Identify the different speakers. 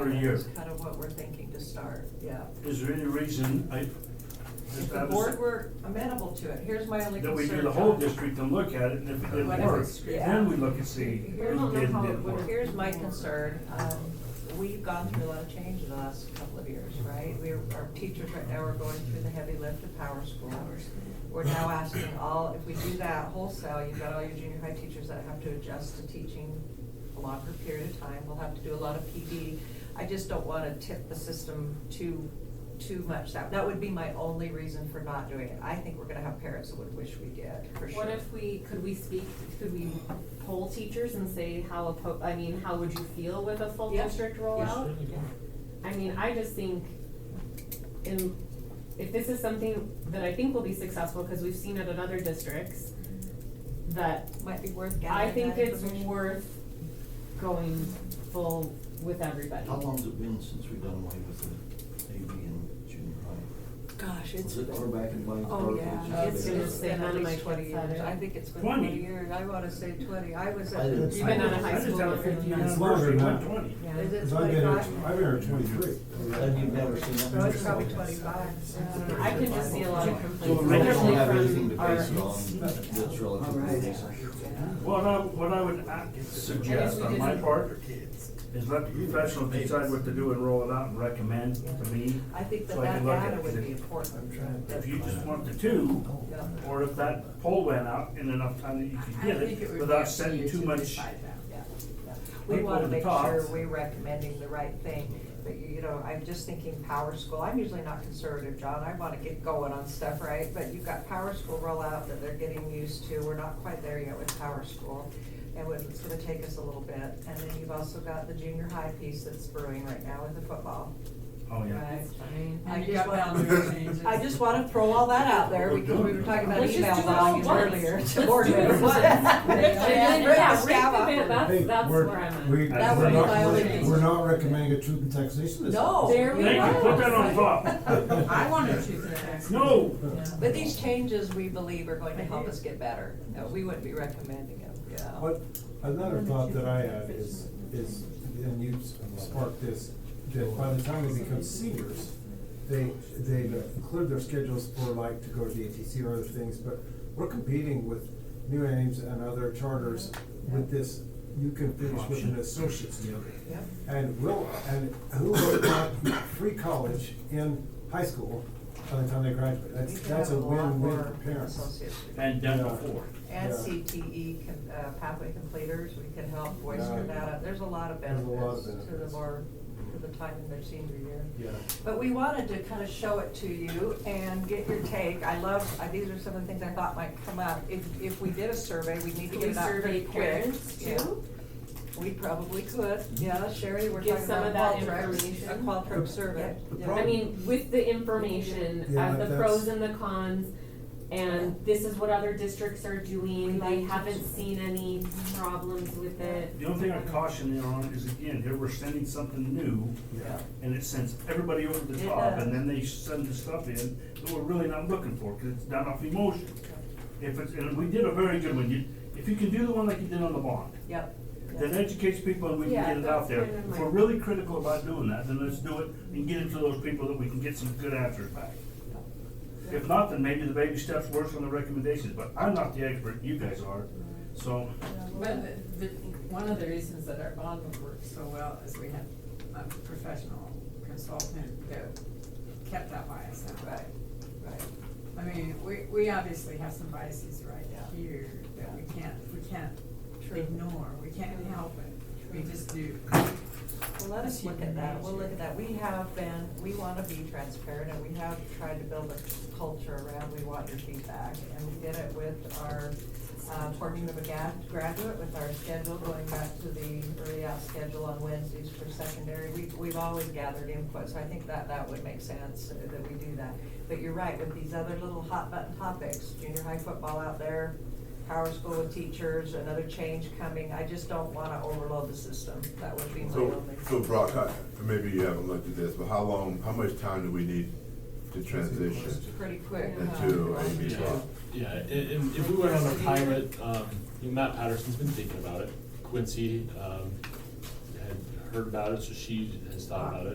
Speaker 1: per year.
Speaker 2: That's kind of what we're thinking to start, yeah.
Speaker 1: Is there any reason I,
Speaker 2: If
Speaker 1: that
Speaker 2: the
Speaker 1: I
Speaker 2: board
Speaker 1: was,
Speaker 2: were amenable to it, here's my only
Speaker 1: that
Speaker 2: concern.
Speaker 1: we do the whole
Speaker 2: John.
Speaker 1: district and look at it, and if it
Speaker 2: What
Speaker 1: didn't
Speaker 2: if
Speaker 1: work,
Speaker 2: it's- yeah.
Speaker 1: then we look and see
Speaker 3: We
Speaker 1: if
Speaker 3: don't
Speaker 1: it
Speaker 3: know
Speaker 1: did
Speaker 3: how
Speaker 1: and
Speaker 3: it
Speaker 1: didn't
Speaker 3: would
Speaker 1: work.
Speaker 2: Here's my concern, um, we've gone through a lot of change in the last couple of years, right? We're, our teachers right now are going through the heavy lift of power school. We're now asking all, if we do that wholesale, you've got all your junior high teachers that have to adjust to teaching a longer period of time, we'll have to do a lot of PD. I just don't wanna tip the system too, too much, that, that would be my only reason for not doing it. I think we're gonna have parents that would wish we did, for sure.
Speaker 3: What if we, could we speak, could we poll teachers and say how, oppo- I mean, how would you feel with a full
Speaker 2: Yeah.
Speaker 3: district
Speaker 2: Yeah.
Speaker 3: rollout? I mean, I just think, in, if this is something that I think will be successful, cause we've seen it in other districts, that
Speaker 2: Might be worth
Speaker 3: I
Speaker 2: gathering
Speaker 3: think
Speaker 2: that
Speaker 3: it's
Speaker 2: information.
Speaker 3: worth going full with everybody.
Speaker 4: How long's it been since we've done away with the AB and junior high?
Speaker 2: Gosh, it's.
Speaker 4: Was it far back in my?
Speaker 2: Oh, yeah, it's,
Speaker 3: It's been
Speaker 2: it's been at
Speaker 3: on my
Speaker 2: least twenty
Speaker 3: kid's
Speaker 2: years,
Speaker 3: side.
Speaker 2: I think it's been
Speaker 1: 20?
Speaker 2: twenty years, I wanna say twenty, I was
Speaker 4: I
Speaker 2: at.
Speaker 4: didn't
Speaker 3: You've been out of
Speaker 1: I
Speaker 3: high
Speaker 1: just
Speaker 3: school.
Speaker 1: have a fifteen
Speaker 3: and-
Speaker 5: It's longer
Speaker 1: anniversary,
Speaker 5: than
Speaker 1: not
Speaker 5: that.
Speaker 1: twenty.
Speaker 2: Is it
Speaker 5: Cause I've been, here-
Speaker 2: twenty-five?
Speaker 5: I've been here twenty-three.
Speaker 4: And you've never seen that?
Speaker 2: No, it's probably twenty-five. yeah.
Speaker 3: I can just see a lot of
Speaker 1: So
Speaker 3: complaints,
Speaker 4: We don't have
Speaker 3: especially
Speaker 4: anything
Speaker 3: from
Speaker 4: to base it
Speaker 3: our
Speaker 4: on that's relatively recent.
Speaker 1: What I, what I would uh, suggest on my part is let the professional decide what to do and roll it out and recommend to me.
Speaker 2: I think that
Speaker 1: So I
Speaker 2: that
Speaker 1: can look at
Speaker 2: data
Speaker 1: it.
Speaker 2: would be important.
Speaker 1: If you just want the two,
Speaker 2: Yeah.
Speaker 1: or if that poll went out in enough time that you could get it without setting too much.
Speaker 2: Yeah, yeah. We
Speaker 1: People
Speaker 2: wanna
Speaker 1: at the
Speaker 2: make
Speaker 1: top.
Speaker 2: sure we're recommending the right thing, but you you know, I'm just thinking power school, I'm usually not conservative, John, I wanna get going on stuff, right? But you've got power school rollout that they're getting used to, we're not quite there yet with power school, and what- it's gonna take us a little bit. And then you've also got the junior high piece that's brewing right now with the football,
Speaker 1: Oh, yeah.
Speaker 2: right? I
Speaker 6: And you
Speaker 2: just
Speaker 6: got
Speaker 2: want-
Speaker 6: boundary changes.
Speaker 2: I just wanna throw all that out there, because we were talking about
Speaker 3: Let's
Speaker 2: email
Speaker 3: just do it all
Speaker 2: volume
Speaker 3: once.
Speaker 2: earlier.
Speaker 3: Let's
Speaker 2: to board
Speaker 3: do it
Speaker 2: members.
Speaker 3: once.
Speaker 2: And just
Speaker 3: Yeah,
Speaker 2: rip the
Speaker 3: yeah,
Speaker 2: scab off.
Speaker 3: rip the bit, that's,
Speaker 5: Hey,
Speaker 3: that's
Speaker 5: we're-
Speaker 3: where I'm at.
Speaker 5: We,
Speaker 1: That
Speaker 5: we're
Speaker 1: would be
Speaker 5: not,
Speaker 1: my
Speaker 5: we're,
Speaker 1: only-
Speaker 5: we're not recommending a truth and taxation this.
Speaker 2: No.
Speaker 3: There we
Speaker 1: Oh, Thank you,
Speaker 3: go.
Speaker 1: put that on top.
Speaker 6: I wanted to connect.
Speaker 1: No,
Speaker 2: But these changes, we believe, are going to help us get better. No, we wouldn't be recommending them, yeah.
Speaker 5: What, another thought that I had is, is, and you sparked this, that by the time they become seniors, they, they've cleared their schedules for like to go to the ATC or other things, but we're competing with new aims and other charters with this, you can finish with an associate's degree.
Speaker 2: Yep.
Speaker 5: And will, and who will want free college in high school by the time they graduate?
Speaker 2: We
Speaker 5: That's,
Speaker 2: could
Speaker 5: that's a
Speaker 2: have lot
Speaker 5: win-win
Speaker 2: more
Speaker 5: for parents.
Speaker 2: associates.
Speaker 1: and done before.
Speaker 2: And
Speaker 5: Yeah.
Speaker 2: CTE com- uh, pathway completers, we can help voice
Speaker 5: Yeah.
Speaker 2: for that. There's a lot of
Speaker 5: There's a lot
Speaker 2: benefits
Speaker 5: of
Speaker 2: to the
Speaker 5: benefits.
Speaker 2: more, to the time in their senior year.
Speaker 5: Yeah.
Speaker 2: But we wanted to kind of show it to you and get your take. I love, I- these are some of the things I thought might come up. If, if we did a survey, we'd need to
Speaker 3: Could
Speaker 2: get
Speaker 3: we
Speaker 2: it out
Speaker 3: survey
Speaker 2: pretty quick.
Speaker 3: parents
Speaker 2: Yeah.
Speaker 3: too?
Speaker 2: We probably could, yeah, Sherry, we're
Speaker 3: Give
Speaker 2: talking
Speaker 3: some
Speaker 2: about
Speaker 3: of that
Speaker 2: Qualtrics, a
Speaker 3: information.
Speaker 2: Qualtrics survey.
Speaker 5: The
Speaker 2: Yeah.
Speaker 3: I mean, with the information,
Speaker 5: Yeah,
Speaker 3: of the
Speaker 5: that's-
Speaker 3: pros and the cons, and this is what other districts are doing, they
Speaker 2: Like-
Speaker 3: haven't seen any problems with it.
Speaker 1: The only thing I caution you on is again, here we're sending something new
Speaker 5: Yeah.
Speaker 1: and it sends everybody over the
Speaker 2: It
Speaker 1: top
Speaker 2: does.
Speaker 1: and then they send the stuff in that we're really not looking for because it's done off emotion. If it's, and we did a very good one. You, if you can do the one like you did on the bond,
Speaker 2: Yep.
Speaker 1: that educates people and we can
Speaker 3: Yeah,
Speaker 1: get it out
Speaker 3: that's
Speaker 1: there.
Speaker 3: kind of
Speaker 1: If
Speaker 3: my-
Speaker 1: we're really critical about doing that, then let's do it and get it to those people that we can get some good answers back. If not, then maybe the baby steps works on the recommendations, but I'm not the expert, you guys are, so.
Speaker 6: But the, the, one of the reasons that our bond would work so well is we had a professional consultant that kept that bias out.
Speaker 2: Right, right.
Speaker 6: I mean, we, we obviously have some biases right
Speaker 2: Yeah.
Speaker 6: here that we can't, we can't ignore, we can't help it, we just do.
Speaker 2: Well, let us look at that, we'll look at that. We have been, we want to be transparent and we have tried to build a culture around, we want your feedback. And we did it with our uh, forming of a ga- graduate, with our schedule, going back to the early out schedule on Wednesdays for secondary. We- We've always gathered input, so I think that that would make sense uh, that we do that. But you're right, with these other little hot button topics, junior high football out there, power school with teachers, another change coming, I just don't wanna overload the system, that would be my
Speaker 7: So,
Speaker 2: only.
Speaker 7: so Brock, I, maybe you haven't looked at this, but how long, how much time do we need to transition
Speaker 2: Pretty quick. huh?
Speaker 7: into AB
Speaker 8: Yeah.
Speaker 7: twelve?
Speaker 8: Yeah, i- if, if we went on a pilot, um, you know, Matt Patterson's been thinking about it, Quincy, um, had heard about it, so she has thought about it.